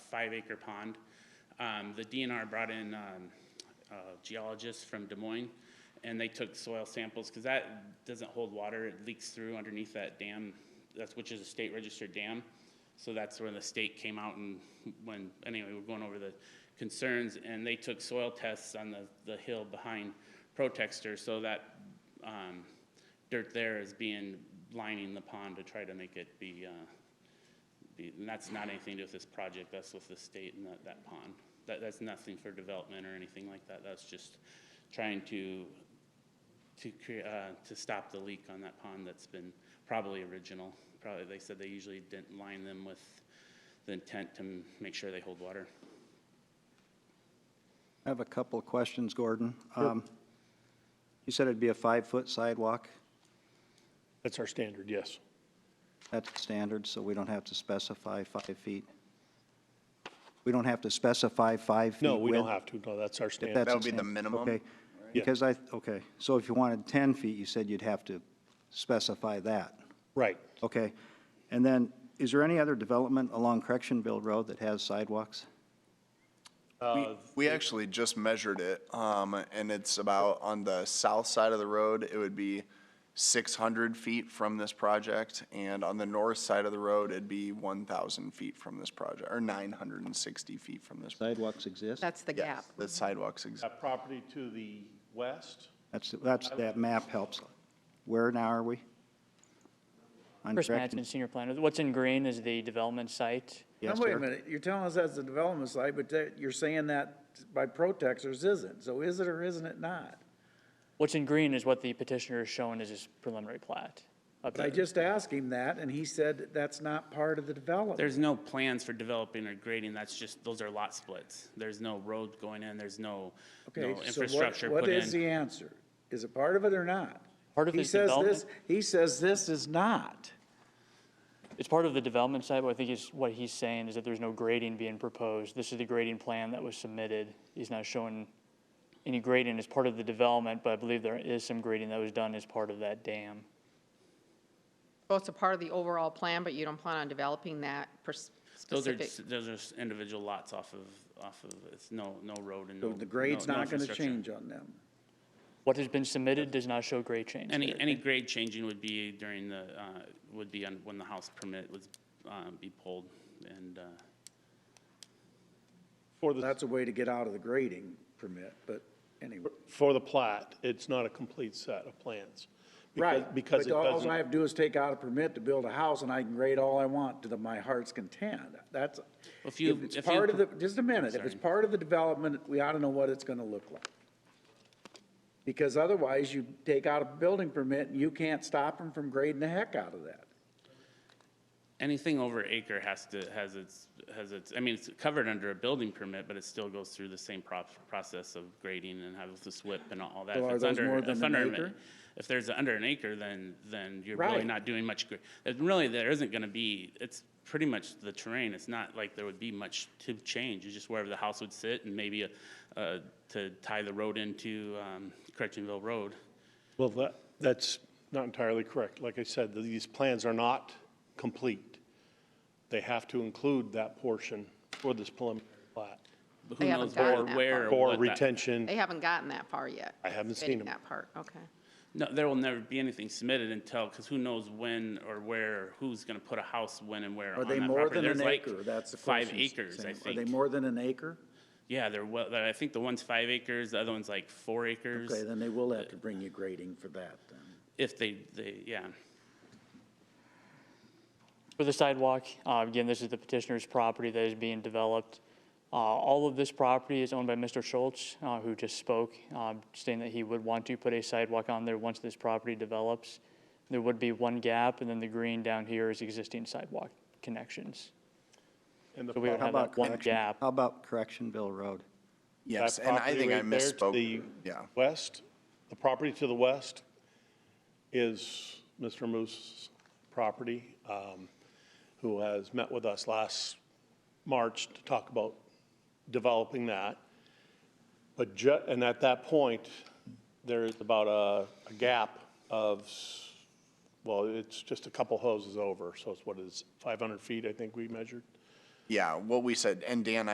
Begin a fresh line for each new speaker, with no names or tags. five acre pond. Um, The DNR brought in um, uh, geologists from Des Moines, and they took soil samples, because that doesn't hold water, it leaks through underneath that dam, that's, which is a state registered dam. So that's where the state came out and when, anyway, we're going over the concerns, and they took soil tests on the, the hill behind Protexter, so that um, dirt there is being, lining the pond to try to make it be, uh, be, and that's not anything to do with this project, that's with the state and that, that pond. That, that's nothing for development or anything like that, that's just trying to, to create, uh, to stop the leak on that pond that's been probably original. Probably, they said they usually didn't line them with the intent to m- make sure they hold water.
I have a couple of questions, Gordon. Um, You said it'd be a five-foot sidewalk.
That's our standard, yes.
That's standard, so we don't have to specify five feet. We don't have to specify five feet
No, we don't
width?
have to, no, that's our
If
standard.
that's
That
a
would be the
standard,
minimum,
Okay,
Yeah.
because I, okay, so if you wanted 10 feet, you said you'd have to specify that.
Right.
Okay, and then, is there any other development along Correctionville Road that has sidewalks?
We actually just measured it, um, and it's about on the south side of the road, it would be six hundred feet from this project, and on the north side of the road, it'd be one thousand feet from this project, or nine hundred and sixty feet from this.
Sidewalks exist?
That's the
Yes,
gap.
The sidewalks exist.
That property to the west,
That's, that's, that map helps. Where now are we? On
Chris
Correction-
Mattson, senior planner. What's in green is the development site.
Yes,
Now, wait
sir.
a minute, you're telling us that's the development side, but that, you're saying that by protesters isn't, so is it or isn't it not?
What's in green is what the petitioner has shown as his preliminary plat.
But I just asked him that, and he said that's not part of the development.
There's no plans for developing or grading, that's just, those are lot splits. There's no road going in, there's no, no
Okay, so what,
infrastructure put in.
what is the answer? Is it part of it or not?
Part of
He
his
says
development-
this. He says this is not.
It's part of the development site, but I think is, what he's saying is that there's no grading being proposed. This is the grading plan that was submitted. He's not showing any grading as part of the development, but I believe there is some grading that was done as part of that dam.
Well, it's a part of the overall plan, but you don't plan on developing that per s-
Those are,
specific.
s- those are s- individual lots off of, off of, it's no, no road and no.
So the grade's
no- no
not gonna
infrastructure.
change on them.
What has been submitted does not show grade change.
Any,
there.
any grade changing would be during the, uh, would be on, when the house permit was, uh, be pulled and, uh,
For the,
That's a way to get out of the grading permit, but anyway.
for the plat, it's not a complete set of plans. because-
Right,
Because it
but all-
doesn't.
All I have to do is take out a permit to build a house, and I can grade all I want to the, my heart's content. That's,
If
if
you-
it's
if you
part of
pro-
the, just a minute, if it's
Sorry.
part of the development, we ought to know what it's gonna look like. Because otherwise, you take out a building permit, and you can't stop them from grading the heck out of that.
anything over acre has to, has its, has its, I mean, it's covered under a building permit, but it still goes through the same prop, process of grading and have the SWIP and all that.
So
If
are
it's
those
under-
more than
if
an
under
acre?
If there's under an acre, then, then you're really
Right.
not doing much, gra- it really, there isn't gonna be, it's pretty much the terrain, it's not like there would be much to change, it's just wherever the house would sit and maybe, uh, to tie the road into, um, Correctionville Road.
Well, that, that's not entirely correct. Like I said, these plans are not complete. They have to include that portion for this preliminary plat.
But
They
Who knows
haven't
where,
gotten that
where. or
For
what that-
retention,
They haven't gotten that far yet.
I haven't seen
fitting
them.
That part, okay.
No, there will never be anything submitted until, because who knows when or where, who's gonna put a house when and where on
Are they
that
more
property.
than
There's
an
like
acre? That's the
five
question.
acres,
Sam.
I think.
Are they more than an acre?
Yeah, they're well, they're- I think the one's five acres, the other one's like four acres,
Okay, then they will have to bring you grading for that, then.
if they, they, yeah.
For the sidewalk, uh, again, this is the petitioner's property that is being developed. Uh, All of this property is owned by Mr. Schultz, uh, who just spoke, um, stating that he would want to put a sidewalk on there once this property develops. There would be one gap, and then the green down here is existing sidewalk connections.
and the
So we would
plat-
How
have
about
that one
correction?
gap.
How about Correctionville Road?
Yes,
that
and I
property
think I
right there to
misspoke.
the
Yeah.
West, the property to the west is Mr. Moose's property, um, who has met with us last March to talk about developing that. But ju, and at that point, there is about a, a gap of, s- well, it's just a couple hoses over, so it's what is, five hundred feet, I think we measured?
yeah, what we said, and Dan,